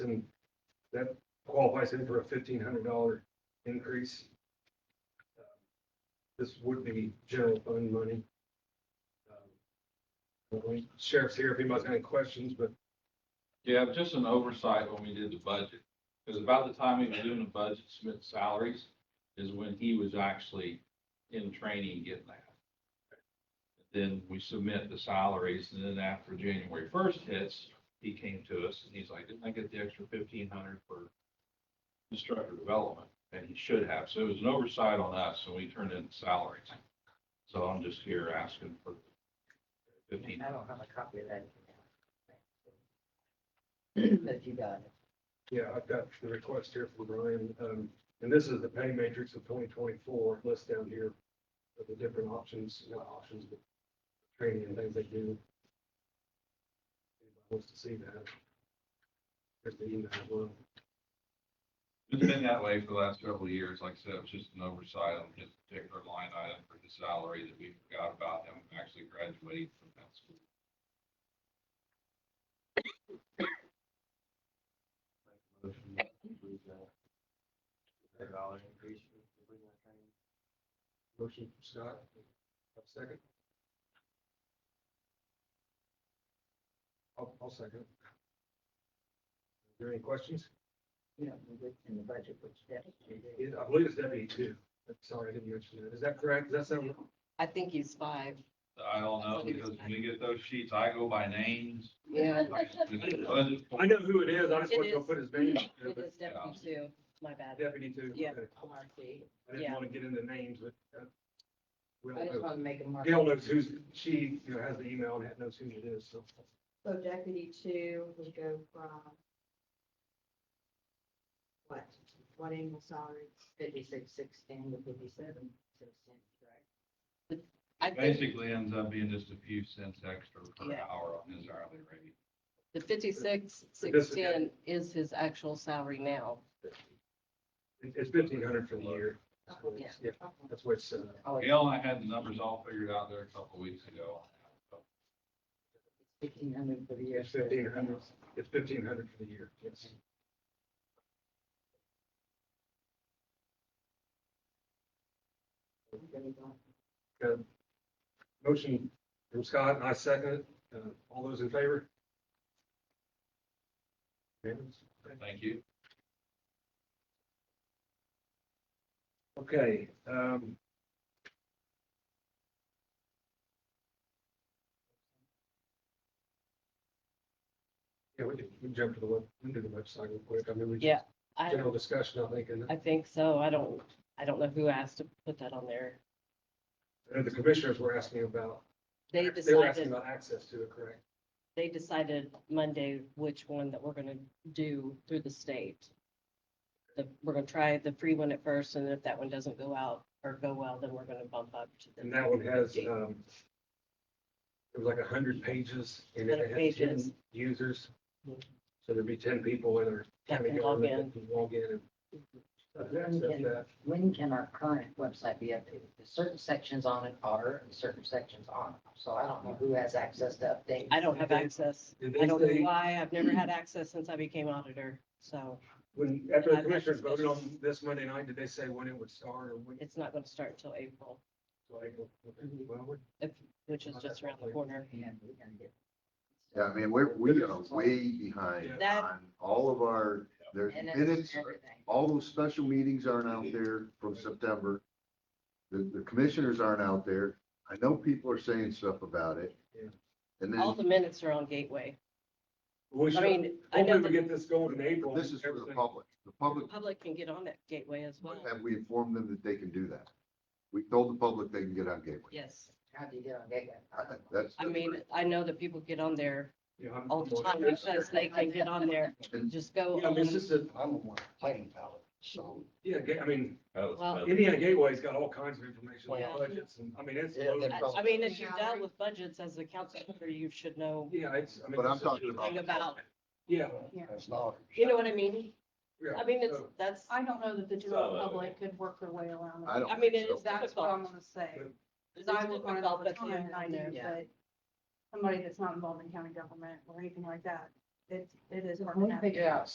that qualifies him for a fifteen hundred dollar increase. Um, This would be general fund money. Um, Sheriff's here if anybody's got any questions, but Yeah, just an oversight when we did the budget, because about the time we were doing the budget, Smith salaries is when he was actually in training getting that. Then we submit the salaries, and then after January first hits, he came to us and he's like, didn't I get the extra fifteen hundred for instructor development? And he should have, so it was an oversight on us, and we turned in the salaries. So I'm just here asking for fifteen I don't have a copy of that. But you got it. Yeah, I've got the request here from Brian, um, and this is the pay matrix of twenty twenty-four, list down here of the different options, not options, but training and things they do. Anybody Wants to see that. There's the email, as well, It's been that way for the last several years. Like I said, it was just an oversight on this particular line item for the salary that we forgot about and actually graduating from that school. motion from Scott, Have a second. I'll, I'll second. Are there any questions? You know, we looked in the budget, which that. Yeah, I believe it's deputy two, I'm sorry, I didn't mention that, is that correct, does that sound? I think he's five. I don't know, because when we get those sheets, I go by names. Yeah. I know who it is, I just It want to is. put his name. out there, It but- um, is deputy two, my bad. Deputy too. Yeah. okay. MRC. I didn't Yeah. want to get into names, but. uh, we I all just know. want to make a mark. Gail knows who's, she, you know, has the email and knows who it is, so. So deputy two would go from what, what annual salary? Fifty-six, sixteen to fifty-seven, sixteen, correct? I think Basically ends up being just a few cents extra per Yeah. hour on his hourly rate. the fifty-six, This is- sixteen is his actual salary now. It- It's fifteen hundred for the year. so Oh, Yeah. it's- Yeah, that's what it's, uh, Oh, it's Gail and I had the numbers all figured out there a couple weeks ago. fifteen hundred for the year. it's fifteen hundred, it's fifteen hundred for the year, yes. Okay. Motion from Scott, and I second it, uh, all those in favor? Unanimous? Okay. Thank you. Okay, um. Yeah, we can, we can jump to the web, we can do the website real quick. I mean, we. Yeah, I, General discussion, I think, and I think so. I don't, I don't know who asked to put that on there. I know the commissioners were asking about. They were asking decided, About access to it, correct? they decided Monday which one that we're gonna do through the state. The, we're gonna try the free one at first, and if that one doesn't go out or go well, then we're gonna bump up to And the that one has, um, it was like a hundred pages and it 100 had ten pages. users. So there'd be ten people in our That county can log government Mm-hmm. that can log in and Then access can- that. When can our current website be updated? Because Certain sections on it are, and certain sections aren't. So I don't know who has access to update. I don't have access. Did I they don't know say- why. I've never had access since I became auditor, so When, after the I've had commissioners voted on discussions. this Monday night, did they say when it would start or when? it's not gonna start until April, like, Mm-hmm. well, we- which is just around the corner. And we're gonna get- Yeah, I mean, we're, we are way behind That- on all of our, there's And minutes, it's everything. all those special meetings aren't out there from September. The, the commissioners aren't out there. I know people are saying stuff about it. Yeah. And All then, the minutes are on Gateway. We I should, mean, I know hopefully we the get this going in April. this is for the everything- public. The public, public can get on that Gateway as well. have we informed them that they can do that? We told the public they can get on Gateway. Yes, How do you get on Gateway? I- That's. that's I mean, great. I know that people get on there Yeah, I'm- all the time um, because they can get on there. And Just go Yeah, I mean, it's on, just a, I'm on planning palette, so yeah, ga- I mean, well, Indiana Gateway's got all kinds of information Yeah. on budgets and, I mean, it's. Yeah, they're loaded. I- I mean, if you've dealt with budgets as a council member, you should know Yeah, it's, I mean. But I'm it's just- talking thing about, Yeah. that's not. you know what I mean? yeah, I mean, it's, so- that's, I don't know that the Some general of it. public could work their way around I it. don't. I mean, think it so. is That's what I'm difficult. gonna say. It's I look on it all difficult, but the the time, and I internet do, is- but somebody that's not involved in county government or anything like that, it, it is. hard to When we navigate. figure out